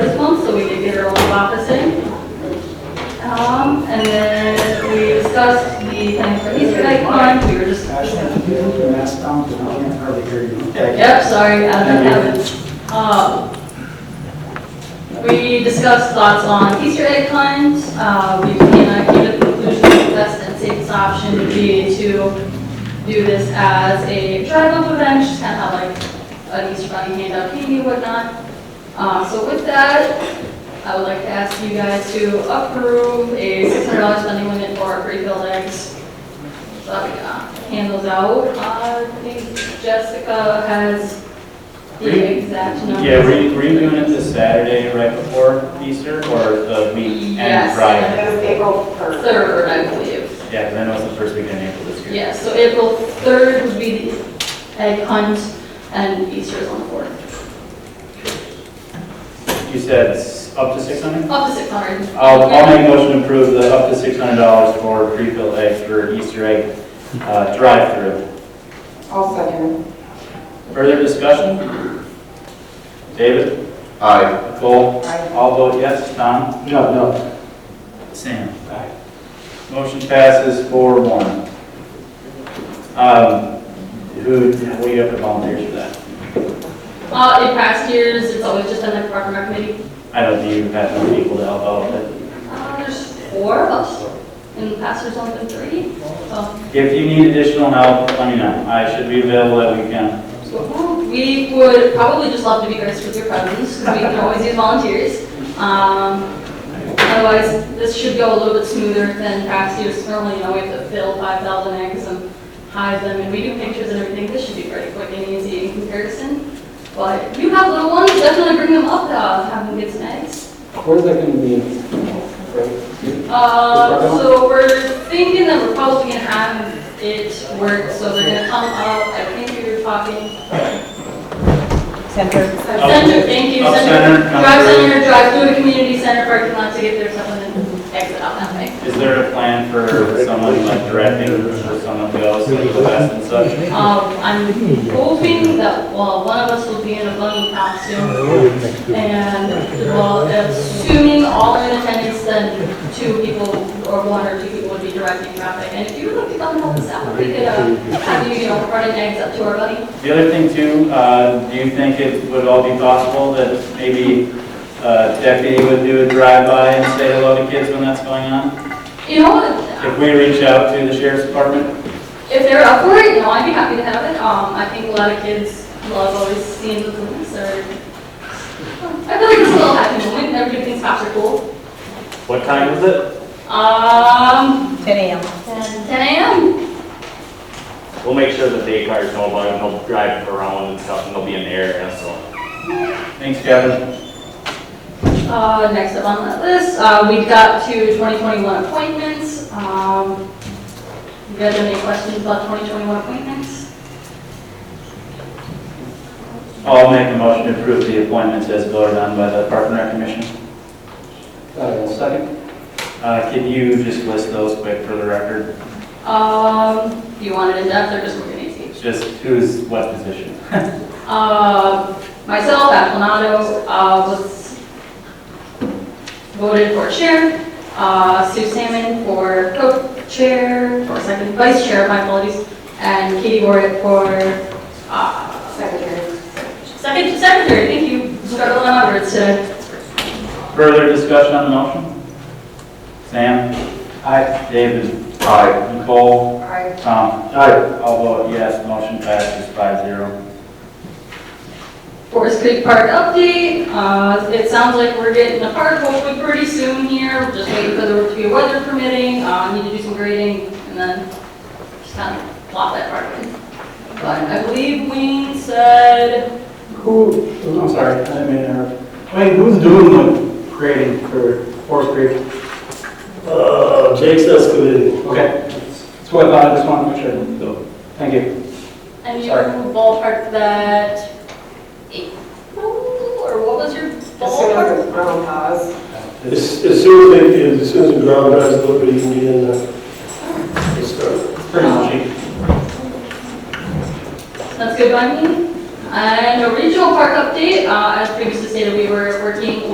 officing. Um, and then we discussed the thing for Easter egg hunt, we were just, Ashley, can you move your mask down, because I can't hardly hear you. yep, sorry, I don't have it. Um, we discussed thoughts on Easter egg hunt, uh, we, you know, came to the conclusion that the best and safest option would be to do this as a drive-up event, just kind of have like an Easter bunny handout candy and whatnot. Uh, so with that, I would like to ask you guys to approve a six hundred dollars spending limit for our free buildings. So, uh, hand those out, uh, I think Jessica has the exact number. Yeah, were you, were you doing it this Saturday right before Easter or the week Yes. and Friday? It was April 3rd. Third, I believe, Yeah, because I know it's the first weekend in April this year. yeah, so April third would be the egg hunt, and Easter is on the fourth, You said it's up to six hundred? up to six hundred. I'll, I'll make a motion to approve the up to six hundred dollars for pre-filled eggs for Easter egg, uh, drive-through. I'll second. Further discussion? David? Aye. Nicole? Aye. All vote yes. Tom? No, no. Sam. Motion passes four one. Um, who, what do you have to volunteer for that? Uh, in past years, it's always just been the park and rec committee. I don't think you have enough people to help out with Uh, there's four of us. In the past, there's only been three, Um, so. it. If you need additional help, let me know. I should be available that weekend. hmm, We would probably just love to be graced with your presence, because we can always use volunteers. Um, otherwise, this should go a little bit smoother than past years. Normally, you know, we have to fill five thousand eggs and hide them, and we do pictures and everything. This should be pretty quick and easy in comparison. But if you have little ones, definitely bring them up, uh, have them get some eggs. Where's that gonna be? Right? Uh, so we're thinking that we're probably gonna have it work, so they're gonna come up, I think we were talking. Center. Center, thank you, Up center, center, come drive through. center, drive through the community center parking lot to get there, someone and exit out that way. Is there a plan for someone like directing where someone goes, like the best and such? Um, I'm hoping that, well, one of us will be in a bunny costume, and, well, assuming all are in attendance, then two people, or one or two people would be directing traffic. And if you would like to come and help us out, we could, uh, have you, you know, running eggs up to our bunny. The other thing too, uh, do you think it would all be possible that maybe uh, deputy would do a drive-by and say hello to kids when that's going on? You know, what? If we reach out to the sheriff's department? if they're up for it, you know, I'd be happy to have it. Um, I think a lot of kids love always seeing the police or, I feel like it's a little happy moment, and everybody thinks cops are cool. What time is it? Um, 10 a.m. 10 10 AM, We'll make sure that day cars know about it, and they'll drive around and stuff, and they'll be in the area, so. Thanks, Kevin. uh, next up on that list, uh, we got to 2021 appointments. Um, you guys have any questions about 2021 appointments? I'll make a motion to approve the appointments as voted on by the Park and Rec Commission. Uh, Second? Uh, Can you just list those quick for the record? Um, do you want it in depth or just we're gonna see? Just who's what position? Uh, Myself, Aplanado, uh, was voted for chair. Uh, Sue Salmon for co-chair, or second vice chair, my apologies, and Katie Warwick for uh, Secretary. second secretary. Thank you, struggling on words today. Further discussion on the motion? Sam? Aye. David? Aye. Nicole? Aye. Tom? Aye. I'll vote yes, motion passes five zero. Forest Creek Park update. Uh, It sounds like we're getting a park hopefully pretty soon here. We're Just waiting for the, to be weather permitting, uh, need to do some grading, and then just kind of plop that park in. But I believe Wayne said, Who, I'm sorry, I didn't mean to interrupt. Wayne, who's doing the grading for Forest Creek? Uh, Jake's excavating. Okay. That's what I thought, I just wanted to make sure. Thank you. and you Sorry. ballparked that April, or what was your As soon as ballpark? it's ground pause. As as soon as they, as soon as the ground dries, nobody can get in there. They start. It's Pretty much it. Uh, That's good by me. And a regional park update, Uh, as previously stated, we were working